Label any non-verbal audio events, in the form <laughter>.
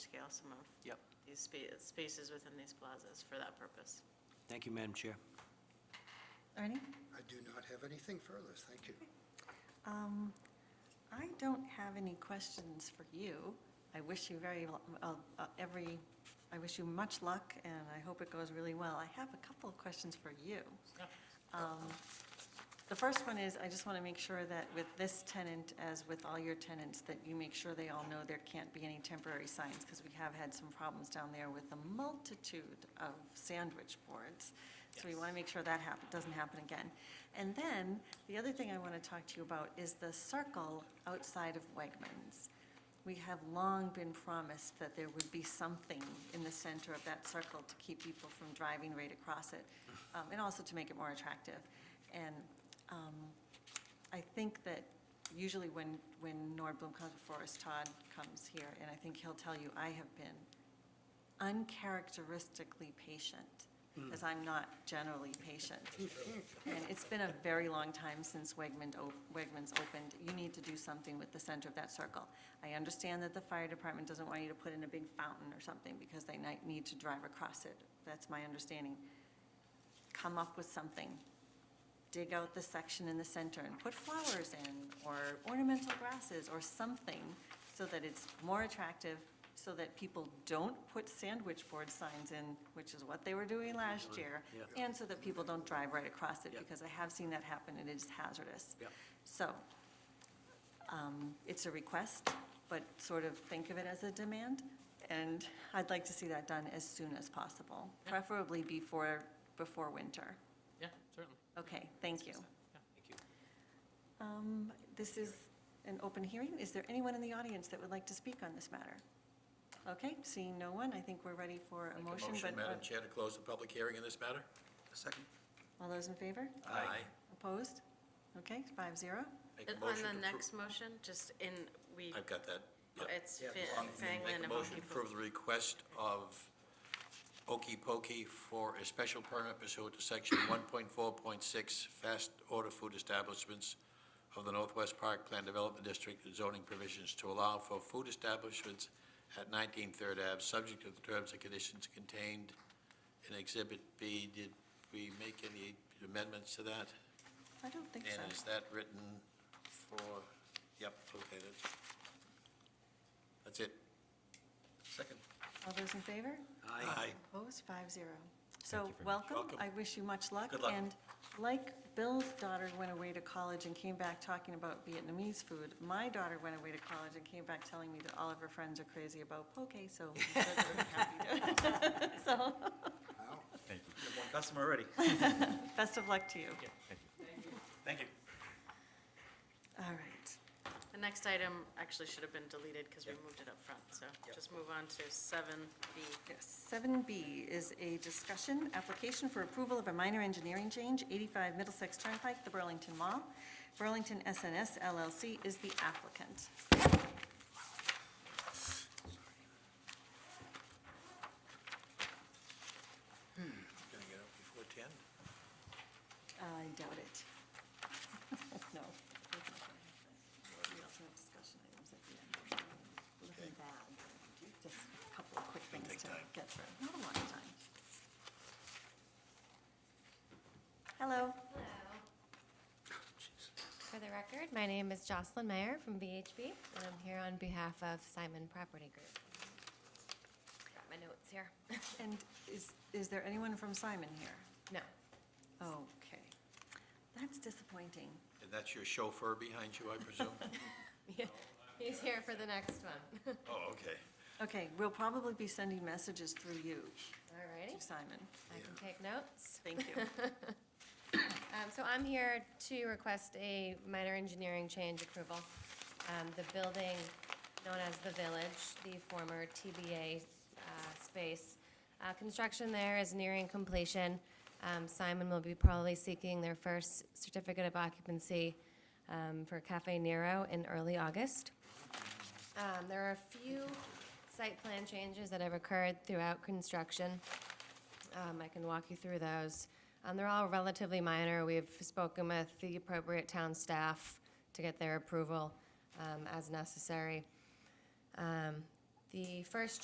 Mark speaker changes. Speaker 1: scale some of
Speaker 2: Yep.
Speaker 1: these spa- spaces within these plazas for that purpose.
Speaker 2: Thank you, Madam Chair.
Speaker 3: Ernie?
Speaker 4: I do not have anything further, thank you.
Speaker 3: Um, I don't have any questions for you. I wish you very, l- uh, uh, every, I wish you much luck, and I hope it goes really well. I have a couple of questions for you. Um, The first one is, I just want to make sure that with this tenant, as with all your tenants, that you make sure they all know there can't be any temporary signs, because we have had some problems down there with a multitude of sandwich boards. So we want to make sure that hap, doesn't happen again. And then, the other thing I want to talk to you about is the circle outside of Wegmans. We have long been promised that there would be something in the center of that circle to keep people from driving right across it, um, and also to make it more attractive. And um, I think that usually when, when Nord Bloom comes before us, Todd comes here, and I think he'll tell you, I have been uncharacteristically patient, because I'm not generally patient. And it's been a very long time since Wegmans, op- Wegmans opened. You need to do something with the center of that circle. I understand that the fire department doesn't want you to put in a big fountain or something because they might need to drive across it. That's my understanding. Come up with something. Dig out the section in the center and put flowers in or ornamental grasses or something so that it's more attractive, so that people don't put sandwich board signs in, which is what they were doing last year.
Speaker 2: Yeah.
Speaker 3: And so that people don't drive right across it,
Speaker 2: Yep.
Speaker 3: because I have seen that happen, and it is hazardous.
Speaker 2: Yep.
Speaker 3: So, um, it's a request, but sort of think of it as a demand, and I'd like to see that done as soon as possible,
Speaker 5: Yeah.
Speaker 3: preferably before, before winter.
Speaker 5: Yeah, certainly.
Speaker 3: Okay, thank you.
Speaker 2: Thank you.
Speaker 3: Um, This is an open hearing. Is there anyone in the audience that would like to speak on this matter? Okay, seeing no one, I think we're ready for a
Speaker 6: Make a
Speaker 3: motion, but, uh,
Speaker 6: Motion, Madam
Speaker 1: uh,
Speaker 6: Chair, to close the public hearing in this matter?
Speaker 2: Second.
Speaker 3: all those in favor?
Speaker 6: Aye.
Speaker 3: Opposed? Okay, five zero.
Speaker 6: Make a
Speaker 1: On
Speaker 6: motion to
Speaker 1: the
Speaker 6: appro-
Speaker 1: next motion, just in, we,
Speaker 6: I've got that. Yep.
Speaker 1: it's
Speaker 2: Yeah.
Speaker 1: Fa-
Speaker 6: Um,
Speaker 1: Fanglin
Speaker 6: Make a
Speaker 1: and Home
Speaker 6: motion to
Speaker 1: Depot.
Speaker 6: approve the request of Okey Pokey for a special permit pursuant to section 1.4.6 fast order food establishments of the Northwest Park Plan Development District zoning provisions to allow for food establishments at 19 Third Ave, subject to the terms and conditions contained in Exhibit B. Did we make any amendments to that?
Speaker 3: I don't think so.
Speaker 6: And is that written for, yep, okay, that's, that's it. Second.
Speaker 3: All those in favor?
Speaker 2: Aye.
Speaker 3: Opposed, five zero. So, welcome,
Speaker 6: Welcome.
Speaker 3: I wish you much luck.
Speaker 6: Good luck.
Speaker 3: And like Bill's daughter went away to college and came back talking about Vietnamese food, my daughter went away to college and came back telling me that all of her friends are crazy about poke, so. I'm happy <laughs> to- So,
Speaker 7: Thank you. one customer already.
Speaker 3: best of luck to you.
Speaker 7: Thank you.
Speaker 3: All right.
Speaker 1: The next item actually should have been deleted because we moved it up front, so just move on to seven B.
Speaker 3: Seven B is a discussion, application for approval of a minor engineering change, eighty-five Middlesex Turnpike, the Burlington Mall. Burlington SNS LLC is the applicant.
Speaker 6: Gonna get up before 10?
Speaker 3: I doubt it. <laughs> No. that's not gonna happen. We also have discussion items at the end. Looking bad. Just a couple of quick things
Speaker 6: take
Speaker 3: to
Speaker 6: time.
Speaker 3: get through. Not a lot of time. Hello.
Speaker 8: For the record, my name is Jocelyn Meyer from VHB, and I'm here on behalf of Simon Property Group. Got my notes here. <laughs>
Speaker 3: And is, is there anyone from Simon here?
Speaker 8: No, <laughs>
Speaker 3: Okay. That's disappointing.
Speaker 6: And that's your chauffeur behind you, I presume?
Speaker 8: he's here for the next one.
Speaker 6: <laughs> Oh, okay.
Speaker 3: Okay, we'll probably be sending messages through you
Speaker 8: All righty,
Speaker 3: to Simon.
Speaker 8: I can take notes.
Speaker 3: Thank you.
Speaker 8: Um, So I'm here to request a minor engineering change approval. Um, The building known as The Village, the former TBA uh, space, uh, construction there is nearing completion. Um, Simon will be probably seeking their first certificate of occupancy um, for Cafe Nero in early August. Um, There are a few site plan changes that have occurred throughout construction. Um, I can walk you through those. Um, They're all relatively minor. We've spoken with the appropriate town staff to get their approval um, as necessary. Um, The first